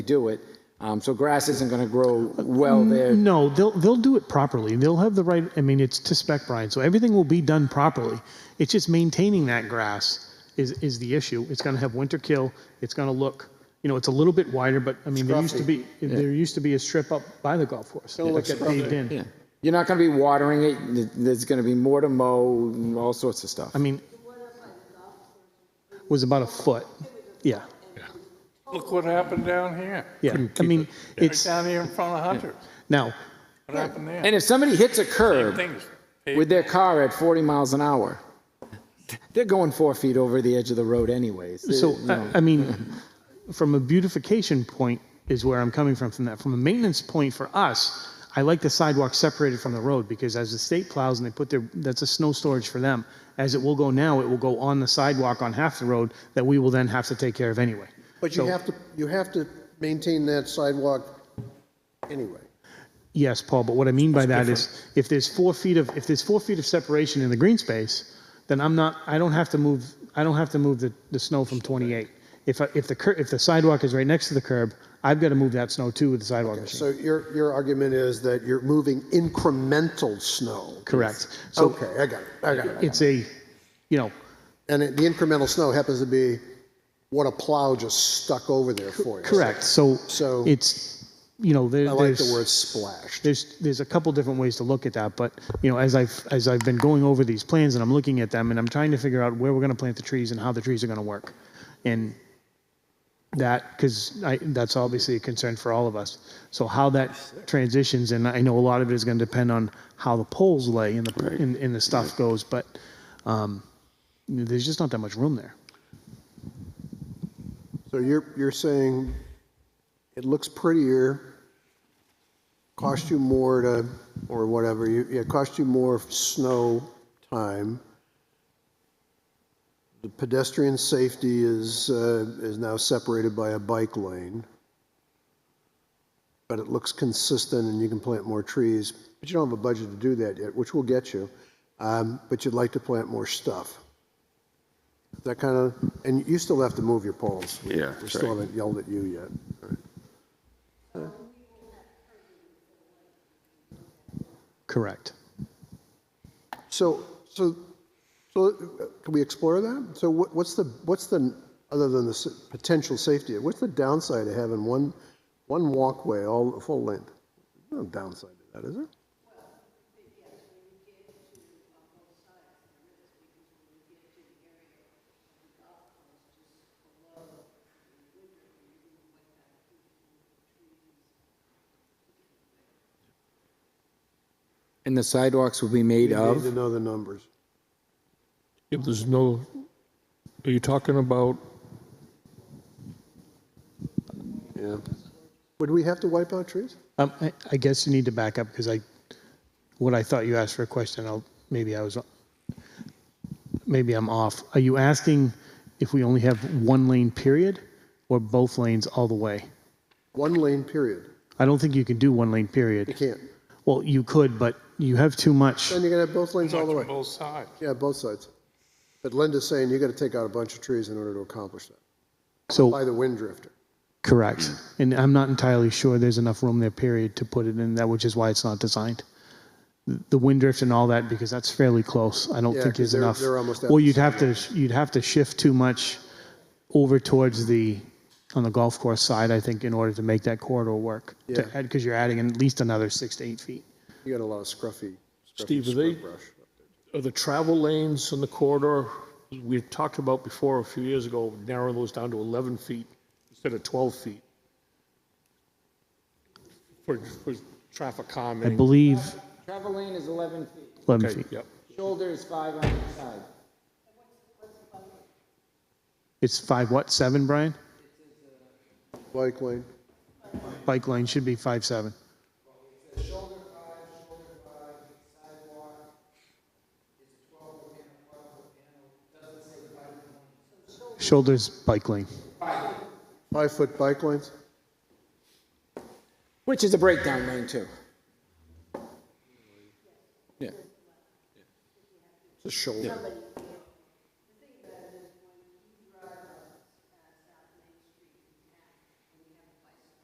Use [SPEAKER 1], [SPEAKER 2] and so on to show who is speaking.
[SPEAKER 1] do it. Um, So grass isn't going to grow well there.
[SPEAKER 2] No, they'll they'll do it properly. They'll have the right. I mean, it's to spec, Brian. So everything will be done properly. It's just maintaining that grass is is the issue. It's going to have winter kill. It's going to look, you know, it's a little bit wider, but I mean, there used to be there used to be a strip up by the golf course. It'll look paved in.
[SPEAKER 1] Yeah. You're not going to be watering it. Th- There's going to be more to mow, all sorts of stuff.
[SPEAKER 2] I mean, was about a foot. Yeah,
[SPEAKER 3] Look what happened down here,
[SPEAKER 2] yeah. I mean,
[SPEAKER 3] right
[SPEAKER 2] it's
[SPEAKER 3] down here in front of Hunter.
[SPEAKER 2] now.
[SPEAKER 3] What happened there?
[SPEAKER 1] And if somebody hits a curb
[SPEAKER 3] Things,
[SPEAKER 1] with their car at 40 miles an hour, they're going four feet over the edge of the road anyways. They-
[SPEAKER 2] So,
[SPEAKER 1] you know.
[SPEAKER 2] I, I mean, from a beautification point is where I'm coming from from that. From a maintenance point for us, I like the sidewalk separated from the road because as the state plows and they put their, that's a snow storage for them. As it will go now, it will go on the sidewalk on half the road that we will then have to take care of anyway.
[SPEAKER 4] But you
[SPEAKER 2] So-
[SPEAKER 4] have to, you have to maintain that sidewalk anyway.
[SPEAKER 2] Yes, Paul, but what I mean by that is if there's four feet of, if there's four feet of separation in the green space, then I'm not, I don't have to move, I don't have to move the, the snow from 28. If, I- if the, cur- if the sidewalk is right next to the curb, I've got to move that snow too with the sidewalk machine.
[SPEAKER 4] So your, your argument is that you're moving incremental snow.
[SPEAKER 2] Correct. So
[SPEAKER 4] Okay, I got it, I got it.
[SPEAKER 2] it's a, you know,
[SPEAKER 4] And it- the incremental snow happens to be what a plow just stuck over there for you.
[SPEAKER 2] correct. So
[SPEAKER 4] So-
[SPEAKER 2] it's, you know, there-
[SPEAKER 4] I
[SPEAKER 2] there's.
[SPEAKER 4] like the word splashed.
[SPEAKER 2] there's there's a couple different ways to look at that, but you know, as I've as I've been going over these plans and I'm looking at them and I'm trying to figure out where we're going to plant the trees and how the trees are going to work, and that because that's obviously a concern for all of us. So how that transitions, and I know a lot of it is going to depend on how the poles lay and the and, and the stuff goes, but um, there's just not that much room there.
[SPEAKER 4] So you're, you're saying it looks prettier, cost you more to, or whatever, you, yeah, cost you more snow time. The pedestrian safety is, uh, is now separated by a bike lane. But it looks consistent and you can plant more trees, but you don't have a budget to do that yet, which will get you. Um, but you'd like to plant more stuff. That kind of, and you still have to move your poles. We-
[SPEAKER 5] Yeah,
[SPEAKER 4] We
[SPEAKER 5] that's
[SPEAKER 4] still
[SPEAKER 5] right.
[SPEAKER 4] haven't yelled at you yet.
[SPEAKER 2] Correct.
[SPEAKER 4] So, so, so uh, can we explore that? So what, what's the, what's the, other than the s- potential safety, what's the downside of having one, one walkway all full length? No downside to that, is there?
[SPEAKER 1] And the sidewalks will be made
[SPEAKER 4] You need to
[SPEAKER 1] of,
[SPEAKER 4] know the numbers.
[SPEAKER 6] If there's no, are you talking about,
[SPEAKER 4] Yeah. Would we have to wipe out trees?
[SPEAKER 2] Um, I, I guess you need to back up because I, what I thought you asked for a question, I'll, maybe I was, maybe I'm off. Are you asking if we only have one lane period or both lanes all the way?
[SPEAKER 4] One lane, period.
[SPEAKER 2] I don't think you can do one lane
[SPEAKER 4] You
[SPEAKER 2] period.
[SPEAKER 4] can't.
[SPEAKER 2] Well, you could, but you have too much.
[SPEAKER 4] Then you're gonna have both lanes all the way.
[SPEAKER 3] both sides.
[SPEAKER 4] Yeah, both sides. But Linda's saying you gotta take out a bunch of trees in order to accomplish that, by
[SPEAKER 2] So,
[SPEAKER 4] the wind drifter.
[SPEAKER 2] correct.
[SPEAKER 4] Hmm.
[SPEAKER 2] And I'm not entirely sure there's enough room there, period, to put it in that, which is why it's not designed. The wind drift and all that, because that's fairly close. I don't
[SPEAKER 4] Yeah,
[SPEAKER 2] think
[SPEAKER 4] 'cause
[SPEAKER 2] there's
[SPEAKER 4] they're-
[SPEAKER 2] enough.
[SPEAKER 4] they're almost at
[SPEAKER 2] Well,
[SPEAKER 4] the
[SPEAKER 2] you'd have to, you'd have to shift too much over towards the, on the golf course side, I think, in order to make that corridor work.
[SPEAKER 4] Yeah.
[SPEAKER 2] Because you're adding at least another six to eight feet.
[SPEAKER 4] You got a lot of scruffy, scruffy
[SPEAKER 6] Steve, are they-
[SPEAKER 4] scrub brush.
[SPEAKER 6] are the travel lanes in the corridor, we had talked about before a few years ago, narrowing those down to 11 feet instead of 12 feet for, for traffic
[SPEAKER 2] I
[SPEAKER 6] calming.
[SPEAKER 2] believe
[SPEAKER 1] travel lane is 11 feet,
[SPEAKER 2] 11
[SPEAKER 6] Okay,
[SPEAKER 2] feet.
[SPEAKER 6] yep.
[SPEAKER 1] shoulder is five on each side.
[SPEAKER 2] It's five, what, seven, Brian?
[SPEAKER 4] Bike lane.
[SPEAKER 2] Bike lane should be five, seven. Shoulders, bike lane.
[SPEAKER 4] Five-foot bike lanes?
[SPEAKER 1] Which is a breakdown lane too.
[SPEAKER 4] It's a shoulder.